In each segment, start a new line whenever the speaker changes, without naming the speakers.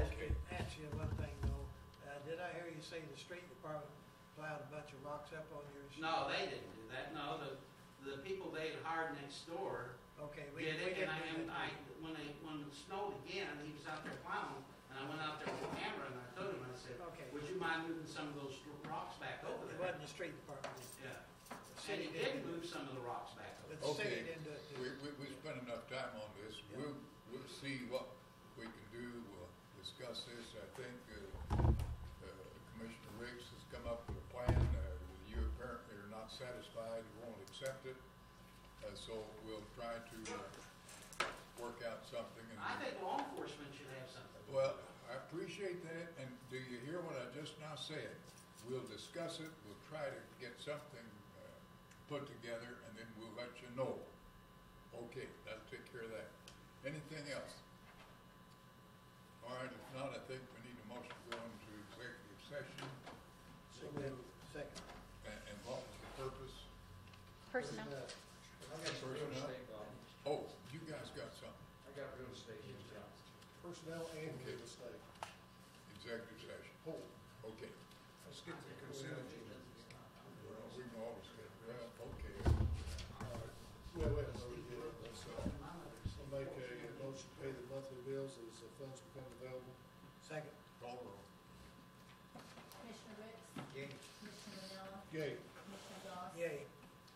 Uh, say the street department plowed a bunch of rocks up on your street?
No, they didn't do that, no, the, the people they had hired next door
Okay, we, we
did
didn't
it,
do
and I, and I,
that.
when it, when it snowed again, he was out there plowing, and I went out there with a camera, and I told him, I
Okay.
said, would you mind moving some of those rocks back over
It
there?
wasn't the street department. it was-
Yeah,
the
and
city
he
do
did
it.
move some of the rocks back
But
over.
the city
Okay,
didn't do it. did
we,
it?
we, we spent enough time on this,
Yeah.
we'll, we'll see what we can do, we'll discuss this, I think, uh, uh, Commissioner Riggs has come up with a plan, uh, you apparently are not satisfied, you won't accept it, uh, so we'll try to, uh, work out something. and-
I think law enforcement should have something.
Well, I appreciate that, and do you hear what I just now said? We'll discuss it, we'll try to get something uh, put together, and then we'll let you know. Okay, that'll take care of that. Anything else? All right, if not, I think we need a motion to go into executive session,
So moved. Second.
and and what was the purpose?
Personnel.
I got some real
Personnel.
estate, Bob.
Oh, you guys got something,
I got real estate in town.
Personnel and
Okay.
real estate.
executive session,
Hold.
okay.
Let's get to the consent agenda.
Well, we can always get, well, okay.
Well, wait, no, we did it. Let's, uh, I'll make a motion to pay the monthly bills as the funds become available.
Second.
Call the roll.
Commissioner Ritz,
Yay.
Commissioner Manella,
Yay.
Commissioner Doss,
Yay.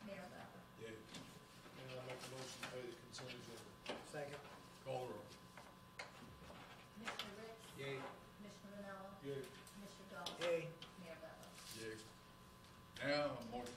Mayor Bauer.
Yeah.
And I'll make a motion to pay the consent agenda.
Second.
Call the roll.
Commissioner Ritz,
Yay.
Commissioner Manella,
Yay.
Commissioner Doss,
Yay.
Mayor Bauer.
Yes. Now, a motion